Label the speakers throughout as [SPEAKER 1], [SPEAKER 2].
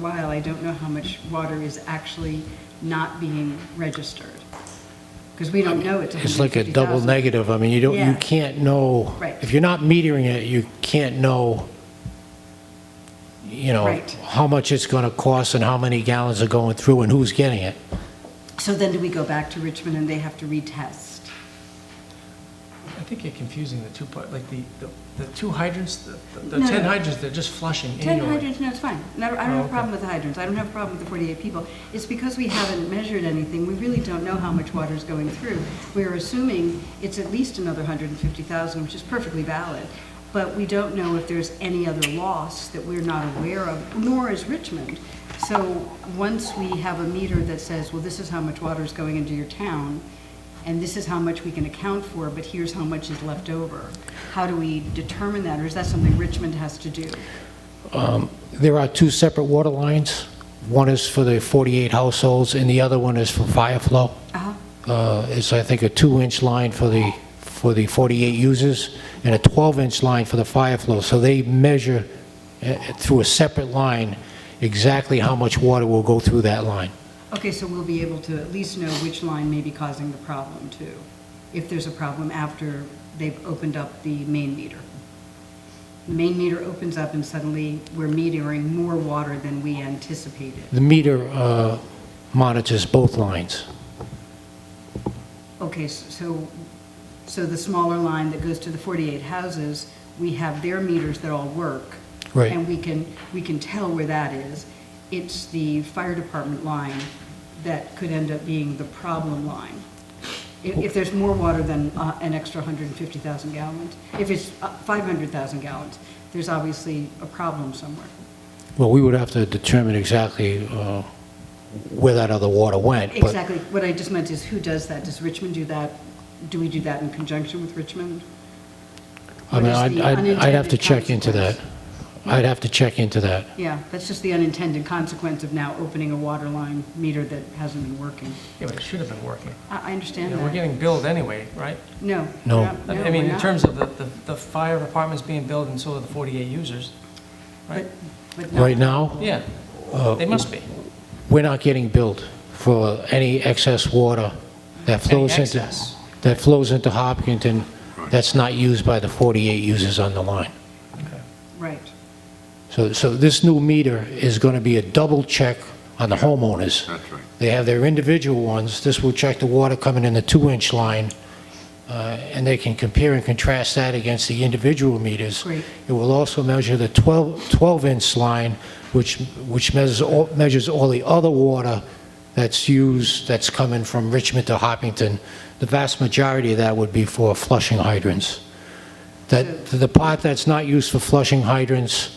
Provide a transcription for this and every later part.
[SPEAKER 1] while, I don't know how much water is actually not being registered. Because we don't know it's
[SPEAKER 2] It's like a double
[SPEAKER 1] 150,000.
[SPEAKER 2] negative. I mean, you don't,
[SPEAKER 1] Yeah.
[SPEAKER 2] you can't know.
[SPEAKER 1] Right.
[SPEAKER 2] If you're not metering it, you can't know, you know,
[SPEAKER 1] Right.
[SPEAKER 2] how much it's going to cost and how many gallons are going through and who's getting it.
[SPEAKER 1] So then do we go back to Richmond and they have to retest?
[SPEAKER 3] I think you're confusing the two part, like the, the- the two hydrants, the, the
[SPEAKER 1] No,
[SPEAKER 3] the 10
[SPEAKER 1] no.
[SPEAKER 3] hydrants, they're just flushing
[SPEAKER 1] 10
[SPEAKER 3] annually.
[SPEAKER 1] hydrants, no, it's fine. No, I don't
[SPEAKER 3] Oh,
[SPEAKER 1] have a
[SPEAKER 3] okay.
[SPEAKER 1] problem with the hydrants, I don't have a problem with the 48 people. It's because we haven't measured anything, we really don't know how much water is going through. We're assuming it's at least another 150,000, which is perfectly valid, but we don't know if there's any other loss that we're not aware of, nor is Richmond. So once we have a meter that says, well, this is how much water is going into your town, and this is how much we can account for, but here's how much is left over, how do we determine that, or is that something Richmond has to do?
[SPEAKER 2] Um, There are two separate water lines. One is for the 48 households and the other one is for fire flow.
[SPEAKER 1] Uh-huh.
[SPEAKER 2] Uh, It's, I think, a two-inch line for the, for the 48 users and a 12-inch line for the fire flow. So they measure uh, through a separate line exactly how much water will go through that line.
[SPEAKER 1] Okay, so we'll be able to at least know which line may be causing the problem too, if there's a problem after they've opened up the main meter. The main meter opens up and suddenly we're metering more water than we anticipated.
[SPEAKER 2] The meter uh, monitors both lines.
[SPEAKER 1] Okay, s- so, so the smaller line that goes to the 48 houses, we have their meters that all work.
[SPEAKER 2] Right.
[SPEAKER 1] And we can, we can tell where that is. It's the fire department line that could end up being the problem line. If, if there's more water than uh, an extra 150,000 gallons, if it's uh, 500,000 gallons, there's obviously a problem somewhere.
[SPEAKER 2] Well, we would have to determine exactly uh, where that other water went. but-
[SPEAKER 1] Exactly. What I just meant is who does that? Does Richmond do that? Do we do that in conjunction with Richmond?
[SPEAKER 2] I mean,
[SPEAKER 1] What is
[SPEAKER 2] I'd,
[SPEAKER 1] the
[SPEAKER 2] I'd- I'd have to
[SPEAKER 1] unintended
[SPEAKER 2] check into that.
[SPEAKER 1] consequence?
[SPEAKER 2] I'd have to check into that.
[SPEAKER 1] Yeah, that's just the unintended consequence of now opening a water line meter that hasn't been working.
[SPEAKER 3] Yeah, but it should have been working.
[SPEAKER 1] I, I
[SPEAKER 3] You
[SPEAKER 1] understand
[SPEAKER 3] know, we're
[SPEAKER 1] that.
[SPEAKER 3] getting billed anyway, right?
[SPEAKER 1] No.
[SPEAKER 2] No.
[SPEAKER 1] we're not-
[SPEAKER 3] I
[SPEAKER 1] no,
[SPEAKER 3] I mean,
[SPEAKER 1] we're
[SPEAKER 3] in
[SPEAKER 1] not.
[SPEAKER 3] terms of the, the, the fire department's being billed and so are the 48 users, right?
[SPEAKER 1] But- but no.
[SPEAKER 2] Right now,
[SPEAKER 3] Yeah,
[SPEAKER 2] uh,
[SPEAKER 3] they must be.
[SPEAKER 2] we're not getting billed for any excess water that flows into,
[SPEAKER 3] excess.
[SPEAKER 2] that flows into Hopkinton that's not used by the 48 users on the line.
[SPEAKER 1] Right.
[SPEAKER 2] So, so this new meter is going to be a double check on the homeowners.
[SPEAKER 4] That's right.
[SPEAKER 2] They have their individual ones. This will check the water coming in the two-inch line, uh, and they can compare and contrast that against the individual meters.
[SPEAKER 1] Great.
[SPEAKER 2] It will also measure the 12 12-inch line, which, which measures all, measures all the other water that's used, that's coming from Richmond to Hopkinton. The vast majority of that would be for flushing hydrants. That, the part that's not used for flushing hydrants,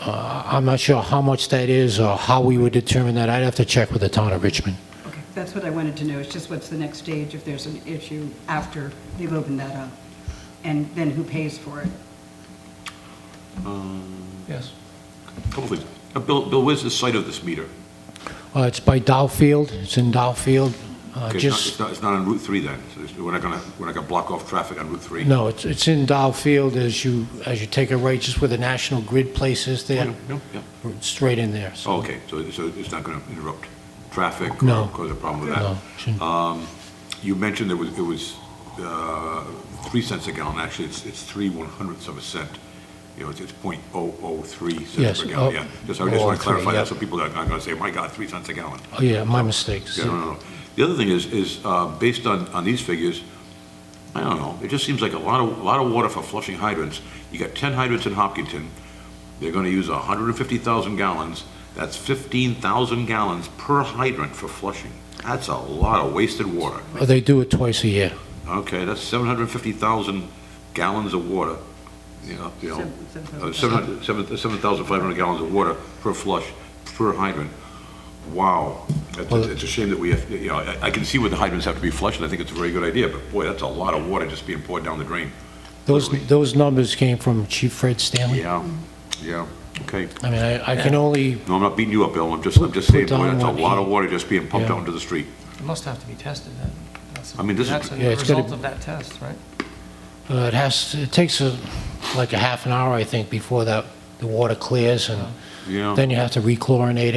[SPEAKER 2] uh, I'm not sure how much that is or how we would determine that. I'd have to check with the town of Richmond.
[SPEAKER 1] Okay, that's what I wanted to know. It's just what's the next stage if there's an issue after they've opened that up? And then who pays for it?
[SPEAKER 3] Yes.
[SPEAKER 4] Couple things. Uh, Bill, Bill, where's the site of this meter?
[SPEAKER 2] Uh, It's by Dowfield, it's in Dowfield. Uh,
[SPEAKER 4] Okay, it's not- It's
[SPEAKER 2] Just,
[SPEAKER 4] not, it's not on Route 3 then, so it's- we're not gonna, we're not gonna block off traffic on Route 3?
[SPEAKER 2] no, it's it's in Dowfield as you, as you take a right, just where the National Grid place is there,
[SPEAKER 4] No, Oh, yeah.
[SPEAKER 2] straight in there.
[SPEAKER 4] Oh, okay, so, so it's not gonna interrupt traffic? or
[SPEAKER 2] No.
[SPEAKER 4] Cause a problem with
[SPEAKER 2] No,
[SPEAKER 4] that?
[SPEAKER 2] shouldn't-
[SPEAKER 4] You mentioned it was, it was, uh, three cents a gallon, actually, it's, it's three one hundredths of a cent. You know, it's, it's point oh oh three
[SPEAKER 2] Yes,
[SPEAKER 4] cents per gallon,
[SPEAKER 2] oh,
[SPEAKER 4] yeah. Just, I just wanna
[SPEAKER 2] 0.03,
[SPEAKER 4] clarify
[SPEAKER 2] yeah.
[SPEAKER 4] that, so people aren't gonna say, my God, three cents a gallon.
[SPEAKER 2] Oh, yeah, my mistake.
[SPEAKER 4] Yeah, no, no, no. The other thing is, is uh, based on, on these figures, I don't know, it just seems like a lot of, a lot of water for flushing hydrants. You got 10 hydrants in Hopkinton, they're gonna use 150,000 gallons, that's 15,000 gallons per hydrant for flushing. That's a lot of wasted water.
[SPEAKER 2] Oh, They do it twice a year.
[SPEAKER 4] Okay, that's 750,000 gallons of water, you know, you know, uh, 700 7 7,500 gallons of water per flush, per hydrant. Wow, That's-
[SPEAKER 2] Well-
[SPEAKER 4] it's a shame that we have, you know, I- I can see where the hydrants have to be flushed, and I think it's a very good idea, but boy, that's a lot of water just being poured down the drain.
[SPEAKER 2] Those, those numbers came from Chief Fred Stanley.
[SPEAKER 4] Yeah, yeah, okay.
[SPEAKER 2] I mean, I I can only,
[SPEAKER 4] No, I'm not beating you up, Bill, I'm just, I'm just
[SPEAKER 2] Put-
[SPEAKER 4] saying,
[SPEAKER 2] put
[SPEAKER 4] boy,
[SPEAKER 2] down
[SPEAKER 4] that's a
[SPEAKER 2] what
[SPEAKER 4] lot
[SPEAKER 2] he-
[SPEAKER 4] of water just being pumped
[SPEAKER 2] Yeah.
[SPEAKER 4] out into the street.
[SPEAKER 3] It must have to be tested then. That's-
[SPEAKER 4] I mean, this is-
[SPEAKER 3] That's a
[SPEAKER 2] Yeah, it's gotta-
[SPEAKER 3] result of that test, right?
[SPEAKER 2] uh, it has, it takes a- like a half an hour, I think, before that, the water clears and
[SPEAKER 4] Yeah.
[SPEAKER 2] Then you have to rechlorinate it.